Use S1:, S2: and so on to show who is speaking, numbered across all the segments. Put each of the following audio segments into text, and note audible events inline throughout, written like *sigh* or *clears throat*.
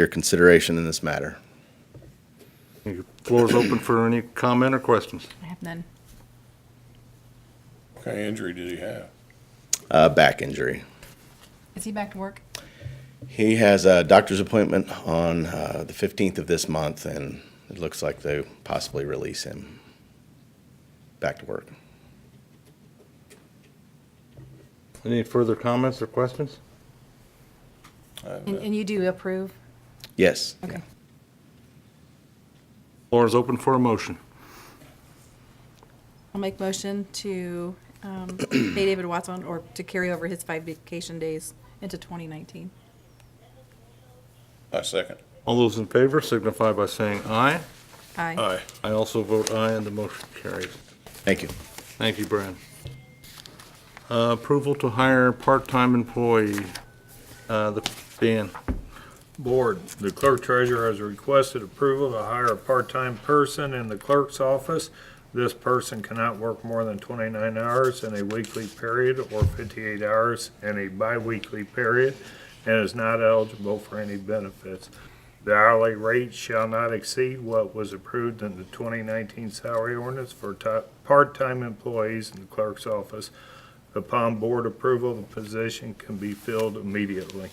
S1: your consideration in this matter.
S2: Your floor is open for any comment or questions.
S3: I have none.
S4: What kind of injury did he have?
S1: Uh, back injury.
S3: Is he back to work?
S1: He has a doctor's appointment on uh, the 15th of this month, and it looks like they possibly release him back to work.
S2: Any further comments or questions?
S3: And, and you do approve?
S1: Yes.
S3: Okay.
S2: Floor is open for a motion.
S3: I'll make motion to *clears throat* um, pay David Watson or to carry over his five vacation days into 2019.
S4: I second.
S2: All those in favor signify by saying aye.
S3: Aye.
S2: I also vote aye, and the motion carries.
S1: Thank you.
S2: Thank you, Brad. Uh, Approval to hire part-time employee, uh, the- Dan.
S5: Board, the clerk treasurer has requested approval to hire a part-time person in the clerk's office. This person cannot work more than twenty-nine hours in a weekly period or fifty-eight hours in a bi-weekly period and is not eligible for any benefits. The hourly rate shall not exceed what was approved in the twenty nineteen salary ordinance for ti- part-time employees in the clerk's office. Upon board approval, the position can be filled immediately.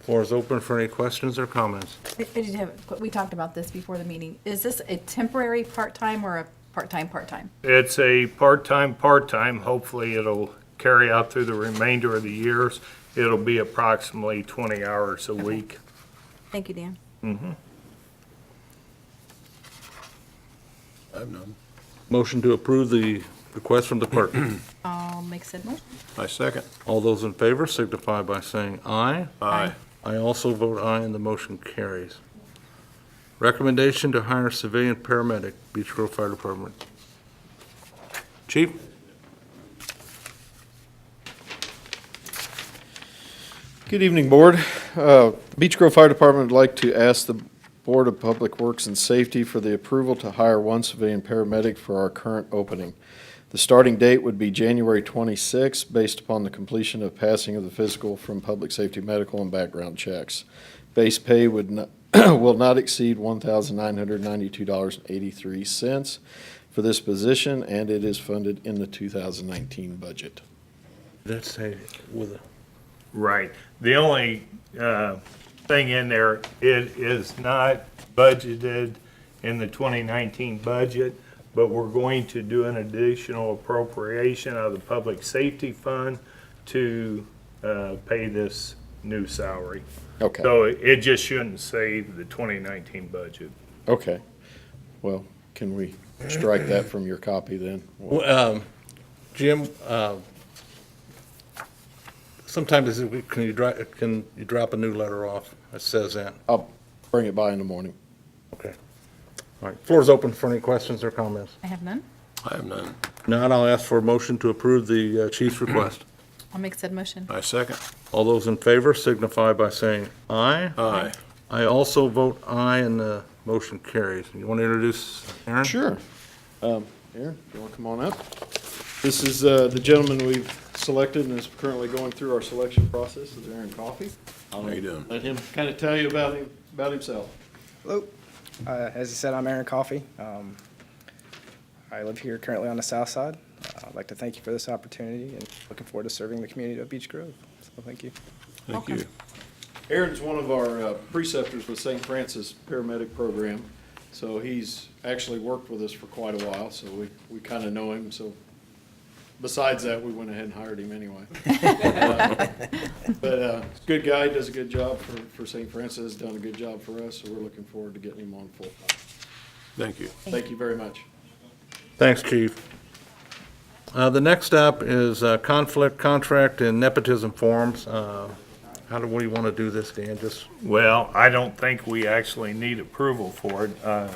S2: Floor is open for any questions or comments.
S3: I I did have, we talked about this before the meeting. Is this a temporary part-time or a part-time, part-time?
S5: It's a part-time, part-time. Hopefully, it'll carry out through the remainder of the years. It'll be approximately 20 hours a week.
S3: Thank you, Dan.
S4: I have none.
S2: Motion to approve the request from the clerk.
S3: I'll make said motion.
S4: I second.
S2: *clears throat* All those in favor signify by saying aye.
S4: Aye.
S2: I also vote aye, and the motion carries. Recommendation to hire civilian paramedic, Beach Grove Fire Department. Chief?
S6: Good evening, Board. Uh, Beech Grove Fire Department would like to ask the Board of Public Works and Safety for the approval to hire one civilian paramedic for our current opening. The starting date would be January 26, based upon the completion of passing of the physical from public safety medical and background checks. Base pay would not, *clears throat* will not exceed $1,992.83 for this position, and it is funded in the 2019 budget.
S2: That's a, with a.
S5: Right. The only uh, thing in there, it is not budgeted in the 2019 budget, but we're going to do an additional appropriation out of the Public Safety Fund to uh, pay this new salary.
S6: Okay.
S5: So it it just shouldn't save the 2019 budget.
S6: Okay, well, can we strike that from your copy then?
S2: Um, Jim, uh, sometimes it- can you dri can you drop a new letter off that says that?
S6: I'll bring it by in the morning.
S2: Okay. All right, floor's open for any questions or comments.
S3: I have none.
S4: I have none.
S2: Now, I'll ask for a motion to approve the uh, chief's request.
S3: I'll make said motion.
S4: I second.
S2: All those in favor signify by saying aye.
S4: Aye.
S2: I also vote aye, and the motion carries. You want to introduce Aaron?
S6: Sure. Um, Aaron, you want to come on up? This is uh, the gentleman we've selected and is currently going through our selection process, is Aaron Coffey.
S4: How you doing?
S6: Let him kind of tell you about him, about himself.
S7: Hello. Uh, as I said, I'm Aaron Coffey. Um, I live here currently on the south side. Uh, I'd like to thank you for this opportunity and looking forward to serving the community of Beech Grove. So thank you.
S4: Thank you.
S6: Aaron's one of our uh, preceptors with St. Francis Paramedic Program, so he's actually worked with us for quite a while, so we, we kind of know him, so besides that, we went ahead and hired him anyway. But, uh, he's a good guy, does a good job for, for St. Francis, done a good job for us, so we're looking forward to getting him on full time.
S4: Thank you.
S6: Thank you very much.
S2: Thanks, Chief. Uh, The next up is uh, conflict, contract, and nepotism forms. Uh, How do, we want to do this, Dan? Just,
S5: Well, I don't think we actually need approval for it. Uh,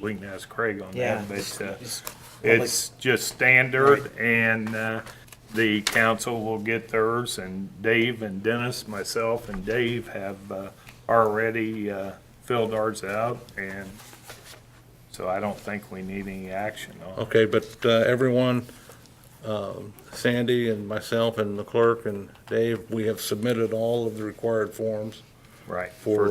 S5: We can ask Craig on
S8: Yeah.
S5: that, but uh,
S8: Just-
S5: it's just standard and uh, the council will get theirs and Dave and Dennis, myself and Dave have uh, already uh, filled ours out and so I don't think we need any action on it.
S2: okay, but uh, everyone, um, Sandy and myself and the clerk and Dave, we have submitted all of the required forms
S5: Right.
S2: for